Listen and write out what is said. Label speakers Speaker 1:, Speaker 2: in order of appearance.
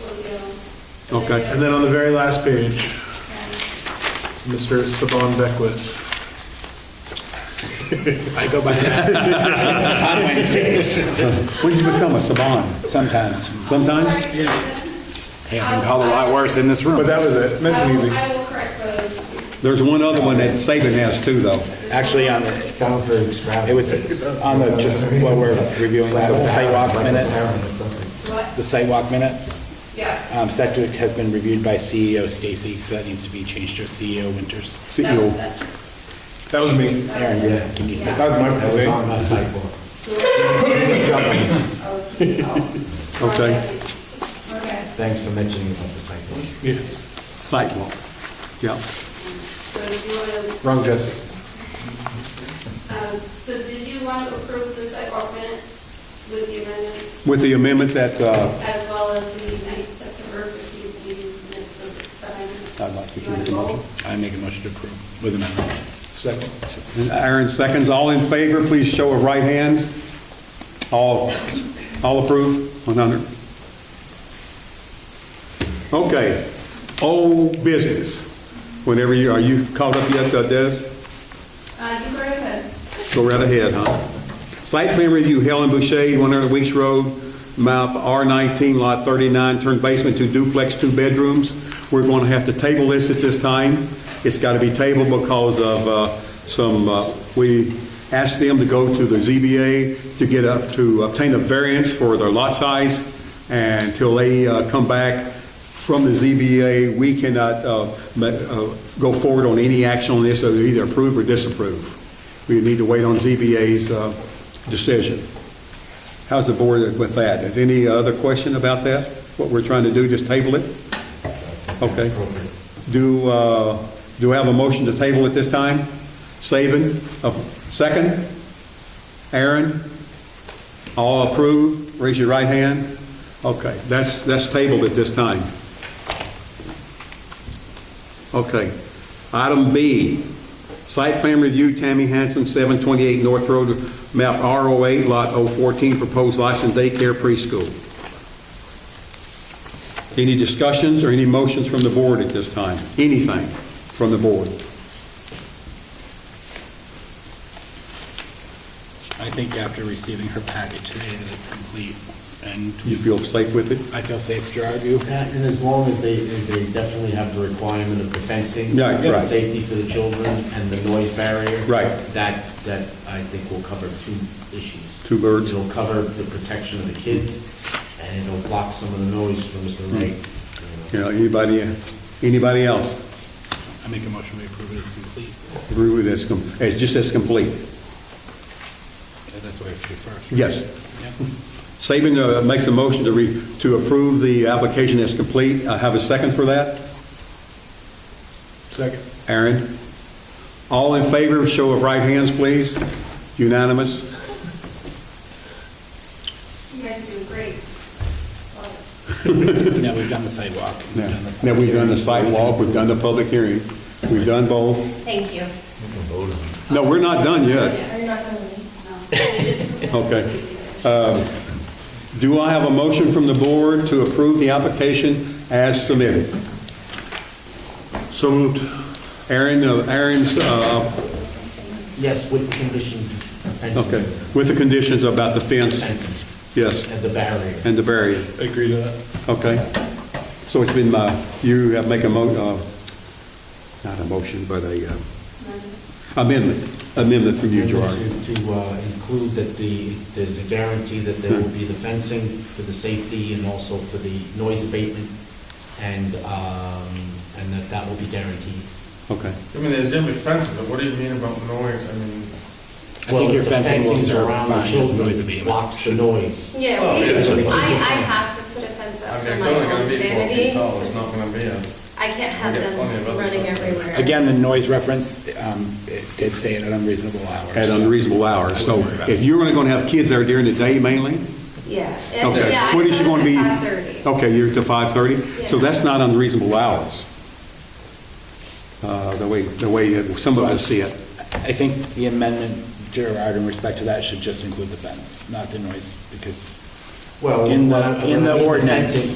Speaker 1: will do. the
Speaker 2: Okay.
Speaker 1: video.
Speaker 3: And then on the very last page,
Speaker 1: And
Speaker 3: Mr. Saban Beckwith.
Speaker 4: I go by that on Wednesdays.
Speaker 2: When did you become a Saban?
Speaker 4: Sometimes.
Speaker 2: Sometimes?
Speaker 1: correct
Speaker 4: Hey, I've been called a lot worse in this
Speaker 3: But
Speaker 4: room.
Speaker 3: that was it,
Speaker 1: those.
Speaker 3: meant
Speaker 1: I
Speaker 3: to be
Speaker 1: will,
Speaker 3: easy.
Speaker 1: I will correct those.
Speaker 2: There's one other one that Saban has too, though.
Speaker 4: Actually, on the,
Speaker 5: It sounds very
Speaker 4: it
Speaker 5: extravagant.
Speaker 4: was on the, just while we're reviewing that, the sidewalk minutes,
Speaker 1: What?
Speaker 4: the sidewalk minutes.
Speaker 2: uh,
Speaker 1: Yes.
Speaker 4: Um, Septic has been reviewed by CEO Stacy, so that needs to be changed to CEO Winters.
Speaker 1: That-
Speaker 2: CEO.
Speaker 1: that-
Speaker 3: That was me.
Speaker 4: Aaron, you're- can you?
Speaker 3: That was my
Speaker 5: That was
Speaker 3: mistake.
Speaker 5: on the sidewalk.
Speaker 1: Oh, see, oh.
Speaker 2: Okay.
Speaker 1: Okay.
Speaker 5: Thanks for mentioning about the sidewalk.
Speaker 3: Yeah.
Speaker 2: Sidewalk. Yeah.
Speaker 1: So do you want to,
Speaker 3: Wrong Jesse.
Speaker 1: um, so did you want to approve the sidewalk minutes with the amendments?
Speaker 2: With the amendment that, uh,
Speaker 1: As well as the 9th September 15th meeting minutes for the amendments?
Speaker 2: I'd like to
Speaker 1: You want
Speaker 2: do
Speaker 1: to
Speaker 2: the
Speaker 1: vote?
Speaker 4: I make a motion to approve with amendments.
Speaker 3: Second.
Speaker 2: Aaron seconds. All in favor, please show of right hands. All, all approve? One hundred. Okay. Old business. Whenever you, are you caught up yet, uh, Des?
Speaker 1: Uh, you go right ahead.
Speaker 2: Go right ahead, huh? Site plan review, Helen Boucher, 100 Weeks Road, map R19, lot 39, turn basement to duplex, two bedrooms. We're going to have to table this at this time. It's got to be tabled because of uh, some, uh, we asked them to go to the ZBA to get up, to obtain a variance for their lot size, and until they uh, come back, from the ZBA, we cannot uh, ma- uh, go forward on any action on this, so either approve or disapprove. We need to wait on ZBA's uh, decision. How's the board with that? Is any other question about that? What we're trying to do, just table it? Okay. Do, uh, do I have a motion to table at this time? Saban, uh, second? Aaron? All approve? Raise your right hand. Okay, that's, that's tabled at this time. Okay. Item B, site plan review, Tammy Hanson, 728 North Road, map R08, lot 014, proposed licensed daycare preschool. Any discussions or any motions from the board at this time? Anything from the board?
Speaker 4: I think after receiving her packet today that it's complete and
Speaker 2: You feel safe with it?
Speaker 4: I feel safe, Gerard, you?
Speaker 5: And as long as they, they definitely have the requirement of the fencing.
Speaker 2: Yeah,
Speaker 5: the
Speaker 2: right.
Speaker 5: Safety for the children and the noise barrier.
Speaker 2: Right.
Speaker 5: That, that I think will cover two issues.
Speaker 2: Two birds.
Speaker 5: It'll cover the protection of the kids, and it'll block some of the noise from Mr.
Speaker 2: Hmm.
Speaker 5: Wright.
Speaker 2: You know, anybody, anybody else
Speaker 4: I make a motion to approve it as complete.
Speaker 2: agree with this, com- it's just as complete?
Speaker 4: Okay, That's what I should do first.
Speaker 2: Yes.
Speaker 4: Yep.
Speaker 2: Saban uh, makes a motion to re, to approve the application as complete. I have a second for that.
Speaker 3: Second.
Speaker 2: Aaron? All in favor, show of right hands, please. Unanimous?
Speaker 1: You guys are doing great. Well,
Speaker 4: Now, we've done the sidewalk. we've
Speaker 2: Now,
Speaker 4: done the-
Speaker 2: now we've done the site walk, we've done the public hearing, we've done both.
Speaker 6: Thank you.
Speaker 2: No, we're not done yet.
Speaker 6: Are you not going to leave?
Speaker 2: Okay. Do I have a motion from the board to approve the application as submitted?
Speaker 3: So moved.
Speaker 2: Aaron, uh, Aaron's, uh,
Speaker 5: Yes, with the conditions, of fencing.
Speaker 2: okay, with the conditions about the fence,
Speaker 5: Fencing
Speaker 2: yes,
Speaker 5: and the barrier.
Speaker 2: and the barrier.
Speaker 3: Agree to that.
Speaker 2: Okay. So it's been, uh, you have make a mo, uh, not a motion, but a uh, amendment, amendment from you, Gerard.
Speaker 5: To to, uh, include that the, there's a guarantee that there will be the fencing for the safety and also for the noise abatement, and, um, and that that will be guaranteed.
Speaker 2: Okay.
Speaker 7: I mean, there's definitely fences, but what do you mean about noise? I mean,
Speaker 4: I think your
Speaker 5: Well, the
Speaker 4: fencing will serve
Speaker 5: around the
Speaker 4: fine as
Speaker 5: children
Speaker 4: noise abatement.
Speaker 5: Blocks the noise.
Speaker 6: Yeah,
Speaker 7: Oh,
Speaker 6: we-
Speaker 7: yeah, it's
Speaker 5: okay.
Speaker 6: I, I have to put a fence
Speaker 7: I
Speaker 6: up
Speaker 7: mean,
Speaker 6: for
Speaker 7: it's
Speaker 6: my
Speaker 7: only gonna
Speaker 6: own
Speaker 7: be four feet
Speaker 6: sanity.
Speaker 7: tall, it's not gonna be a,
Speaker 6: I can't have
Speaker 7: We got
Speaker 6: them
Speaker 7: plenty of other
Speaker 6: running
Speaker 7: stuff.
Speaker 6: everywhere.
Speaker 4: Again, the noise reference, um, it did say at an unreasonable hour.
Speaker 2: At
Speaker 4: so-
Speaker 2: unreasonable hours. So if you're only going to have kids there during the day mainly?
Speaker 6: Yeah. If- yeah,
Speaker 2: Okay.
Speaker 6: I
Speaker 2: What is she
Speaker 6: put
Speaker 2: going to be?
Speaker 6: it at 5:30.
Speaker 2: Okay, you're to 5:30? So
Speaker 6: Yeah.
Speaker 2: that's not unreasonable hours. Uh, The way, the way that some of us see it.
Speaker 4: I think the amendment, Gerard, in respect to that, should just include the fence, not the noise, because
Speaker 5: Well,
Speaker 4: In the-
Speaker 5: when I- when
Speaker 4: in
Speaker 5: I
Speaker 4: the
Speaker 5: mean
Speaker 4: ordinance.
Speaker 5: fencing,